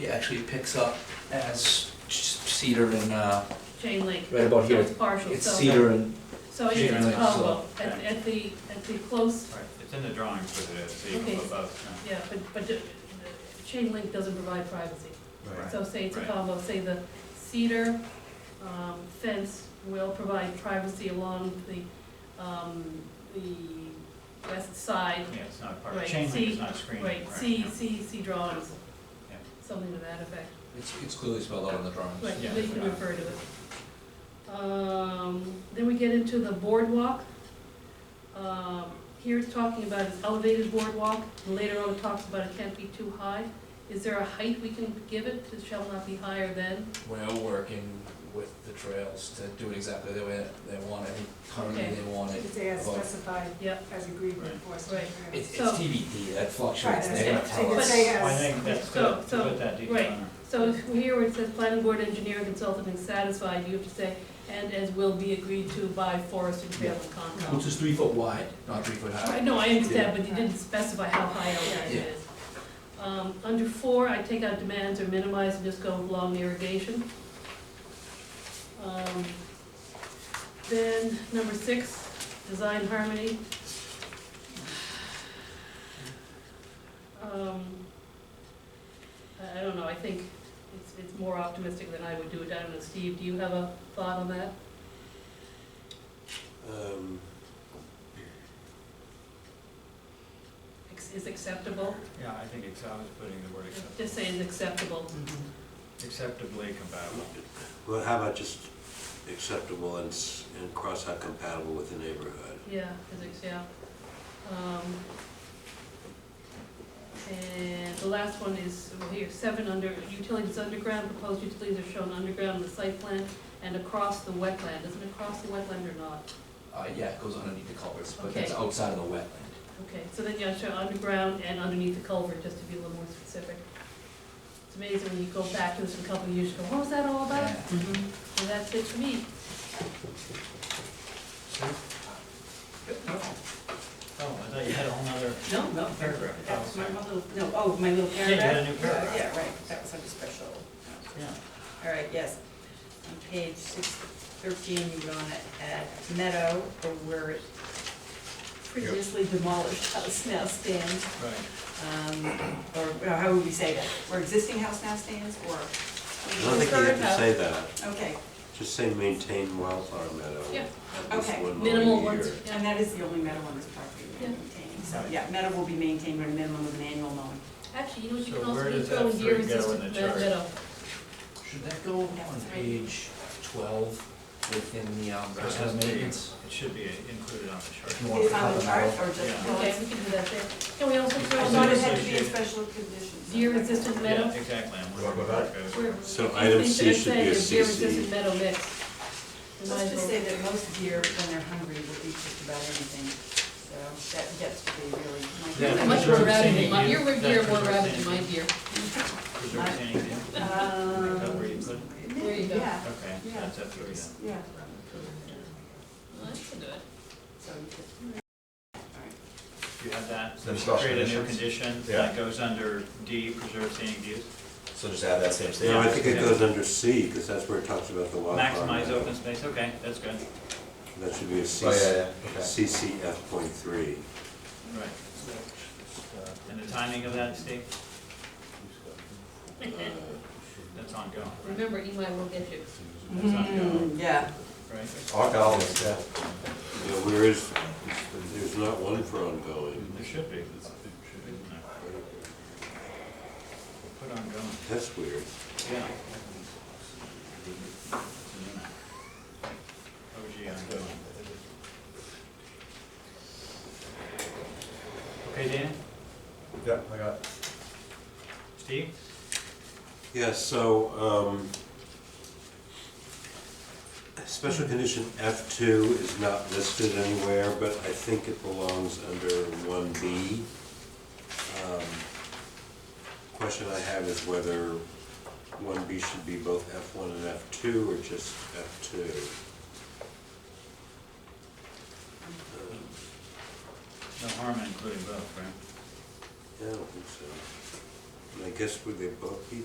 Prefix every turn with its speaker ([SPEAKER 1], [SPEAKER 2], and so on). [SPEAKER 1] It actually picks up as cedar and, uh,
[SPEAKER 2] chain link.
[SPEAKER 1] right about here,
[SPEAKER 2] It's partial,
[SPEAKER 1] it's
[SPEAKER 2] so,
[SPEAKER 1] cedar and,
[SPEAKER 2] so it's,
[SPEAKER 1] chain
[SPEAKER 2] it's
[SPEAKER 1] link,
[SPEAKER 2] oh, well, at,
[SPEAKER 3] so-
[SPEAKER 2] at the, at the close,
[SPEAKER 3] Right, it's in the drawings with it, so you can
[SPEAKER 2] Okay.
[SPEAKER 3] put both.
[SPEAKER 2] yeah, but, but the- the chain link doesn't provide privacy.
[SPEAKER 3] Right.
[SPEAKER 2] So say it's a
[SPEAKER 3] Right.
[SPEAKER 2] combo, say the cedar um, fence will provide privacy along the, um, the west side.
[SPEAKER 3] Yeah, it's not part of,
[SPEAKER 2] Right,
[SPEAKER 3] chain link
[SPEAKER 2] see-
[SPEAKER 3] is not screened.
[SPEAKER 2] Right, see,
[SPEAKER 3] yeah.
[SPEAKER 2] see, see drawings,
[SPEAKER 3] Yeah.
[SPEAKER 2] something to that effect.
[SPEAKER 1] it's, it's clearly spelled out on the drawings.
[SPEAKER 2] Right,
[SPEAKER 3] Yeah.
[SPEAKER 2] they can refer to it. Um, then we get into the boardwalk. Um, here it's talking about an elevated boardwalk, and later on it talks about it can't be too high. Is there a height we can give it, it shall not be higher than?
[SPEAKER 1] We're working with the trails to do it exactly the way they want it, currently
[SPEAKER 2] Okay.
[SPEAKER 1] they want it.
[SPEAKER 4] It's as
[SPEAKER 1] Above.
[SPEAKER 4] specified,
[SPEAKER 2] Yep.
[SPEAKER 4] as agreed with
[SPEAKER 3] Right.
[SPEAKER 4] Forest and Trails.
[SPEAKER 1] It's, it's
[SPEAKER 2] So-
[SPEAKER 1] TBD, that fluctuates,
[SPEAKER 4] Right,
[SPEAKER 1] they're gonna
[SPEAKER 2] that's-
[SPEAKER 1] tell
[SPEAKER 2] but- uh,
[SPEAKER 1] us.
[SPEAKER 4] Yes.
[SPEAKER 3] Well, I think that's
[SPEAKER 2] So-
[SPEAKER 3] good, to
[SPEAKER 2] so-
[SPEAKER 3] put that detail
[SPEAKER 2] right.
[SPEAKER 3] in there.
[SPEAKER 2] So if here where it says planning board engineer consultant and satisfied, you have to say, and as will be agreed to by Forest and Trail and Concom.
[SPEAKER 1] Which is three foot wide, not three foot high.
[SPEAKER 2] Right, no, I understand, but you didn't specify how high elevated it is. Um, under four, I take out demands or minimize and just go with long irrigation. Um, Then, number six, design harmony. Um, I, I don't know, I think it's, it's more optimistic than I would do it, I don't know, Steve, do you have a thought on that?
[SPEAKER 5] Um,
[SPEAKER 2] Ex- Is acceptable,
[SPEAKER 3] Yeah, I think it's, I was putting the word acceptable,
[SPEAKER 2] just say is acceptable.
[SPEAKER 3] acceptably compatible.
[SPEAKER 5] Well, how about just acceptable and, s- and cross out compatible with the neighborhood?
[SPEAKER 2] Yeah, physics, yeah. Um, And the last one is, well, here, seven under, utilities underground, proposed utilities are shown underground in the site plan and across the wetland, isn't it across the wetland or not?
[SPEAKER 1] Uh, yeah, it goes underneath the culverts, but
[SPEAKER 2] Okay.
[SPEAKER 1] that's outside of the wetland.
[SPEAKER 2] Okay, so then you have to show underground and underneath the culvert, just to be a little more specific. It's amazing when you go back to this in a couple of years, you go, what was that all about?
[SPEAKER 1] Yeah.
[SPEAKER 3] Mm-hmm.
[SPEAKER 2] And that's it for me.
[SPEAKER 3] Oh, I thought you had a whole nother
[SPEAKER 6] No, no,
[SPEAKER 3] paragraph.
[SPEAKER 6] that was my little, no, oh, my little
[SPEAKER 3] Yeah, you
[SPEAKER 6] paragraph?
[SPEAKER 3] had a new paragraph.
[SPEAKER 6] Yeah, right, that was under special.
[SPEAKER 3] Yeah,
[SPEAKER 6] All right, yes. On page six thirteen, you wanna add meadow, or where it previously demolished house now stands.
[SPEAKER 3] right.
[SPEAKER 6] Um, or, well, how would we say that? Where existing house now stands, or?
[SPEAKER 5] I don't think you have to say that,
[SPEAKER 6] Okay,
[SPEAKER 5] just say maintain wildflower meadow.
[SPEAKER 2] Yeah.
[SPEAKER 5] At least
[SPEAKER 6] Okay.
[SPEAKER 5] one mowing
[SPEAKER 2] Minimal
[SPEAKER 5] a
[SPEAKER 2] ones,
[SPEAKER 5] year.
[SPEAKER 2] yeah.
[SPEAKER 6] and that is the only meadow on this property
[SPEAKER 2] Yeah.
[SPEAKER 6] we're maintaining, so,
[SPEAKER 3] Right.
[SPEAKER 6] yeah, meadow will be maintained with a minimum of an annual mowing.
[SPEAKER 2] Actually, you know, what you
[SPEAKER 3] So
[SPEAKER 2] can also
[SPEAKER 3] where
[SPEAKER 2] do
[SPEAKER 3] does
[SPEAKER 2] throw
[SPEAKER 3] that
[SPEAKER 2] in
[SPEAKER 3] three go in the
[SPEAKER 2] year-resistant
[SPEAKER 3] chart?
[SPEAKER 2] meadow.
[SPEAKER 1] Should that go on page twelve within the, um,
[SPEAKER 3] It
[SPEAKER 1] personal
[SPEAKER 3] has to be-
[SPEAKER 1] maintenance?
[SPEAKER 3] It should be included on the chart.
[SPEAKER 1] If you want
[SPEAKER 6] Is
[SPEAKER 1] to
[SPEAKER 6] it on
[SPEAKER 1] cut
[SPEAKER 6] the
[SPEAKER 1] them
[SPEAKER 6] chart,
[SPEAKER 1] out.
[SPEAKER 6] or just?
[SPEAKER 3] Yeah.
[SPEAKER 6] well,
[SPEAKER 2] Okay,
[SPEAKER 6] it's-
[SPEAKER 2] we can do that there. Can we also
[SPEAKER 6] I
[SPEAKER 2] throw in
[SPEAKER 6] thought it had to be in
[SPEAKER 3] Associated.
[SPEAKER 6] special conditions.
[SPEAKER 2] year-resistant meadow?
[SPEAKER 3] Yeah, exactly, I'm wondering where it goes.
[SPEAKER 2] We're-
[SPEAKER 5] So
[SPEAKER 2] these
[SPEAKER 5] item
[SPEAKER 2] things
[SPEAKER 5] C
[SPEAKER 2] that are
[SPEAKER 5] should be
[SPEAKER 2] saying
[SPEAKER 5] a
[SPEAKER 2] is beer
[SPEAKER 5] CC.
[SPEAKER 2] resistant metal mix. We might
[SPEAKER 6] Let's
[SPEAKER 2] as
[SPEAKER 6] just
[SPEAKER 2] well-
[SPEAKER 6] say that most deer, when they're hungry, will eat just about anything, so that gets to be really.
[SPEAKER 3] Yeah,
[SPEAKER 2] How
[SPEAKER 6] my- Um,
[SPEAKER 2] Much
[SPEAKER 3] Preserve
[SPEAKER 2] more rabbit than
[SPEAKER 3] sanity.
[SPEAKER 2] my, your
[SPEAKER 3] That's
[SPEAKER 2] beer more
[SPEAKER 3] preserve
[SPEAKER 2] rabbit than my
[SPEAKER 3] sanity.
[SPEAKER 2] beer.
[SPEAKER 3] Preserve anything. Is
[SPEAKER 2] Uh,
[SPEAKER 3] that where you put it?
[SPEAKER 6] Um,
[SPEAKER 2] There you go.
[SPEAKER 6] Yeah,
[SPEAKER 3] Okay, so
[SPEAKER 6] Yeah.
[SPEAKER 3] that's up to you then.
[SPEAKER 6] yeah.
[SPEAKER 2] Well, That's good.
[SPEAKER 6] So you could-
[SPEAKER 3] You have that,
[SPEAKER 7] Then special
[SPEAKER 3] create a new
[SPEAKER 7] conditions?
[SPEAKER 3] condition,
[SPEAKER 7] Yeah.
[SPEAKER 3] that goes under D, preserve scenic views,
[SPEAKER 7] So just add that same
[SPEAKER 5] No, I
[SPEAKER 7] statement.
[SPEAKER 5] think it
[SPEAKER 3] Yeah.
[SPEAKER 5] goes under C, because that's where it talks about the wildflower.
[SPEAKER 3] maximize
[SPEAKER 5] meadow.
[SPEAKER 3] open space, okay, that's good,
[SPEAKER 5] That should be a
[SPEAKER 7] Oh, yeah,
[SPEAKER 5] CC,
[SPEAKER 7] yeah, okay.
[SPEAKER 5] CCF point three.
[SPEAKER 3] right. And the timing of that, Steve, that's ongoing, right?
[SPEAKER 2] Remember, Eli will get you.
[SPEAKER 3] That's ongoing,
[SPEAKER 6] Mm, Yeah,
[SPEAKER 3] right?
[SPEAKER 7] All columns, yeah.
[SPEAKER 5] Yeah, where is, there's not one for ongoing.
[SPEAKER 3] There should be. Put ongoing,
[SPEAKER 5] That's weird.
[SPEAKER 3] yeah. OG ongoing. Okay, Dan,
[SPEAKER 7] Yeah, I got it.
[SPEAKER 3] Steve?
[SPEAKER 5] Yeah, so, um, special condition F two is not listed anywhere, but I think it belongs under one B. Um, Question I have is whether one B should be both F one and F two, or just F two? Um,
[SPEAKER 3] No harm in including both, right?
[SPEAKER 5] Yeah, I don't think so. And I guess would they both be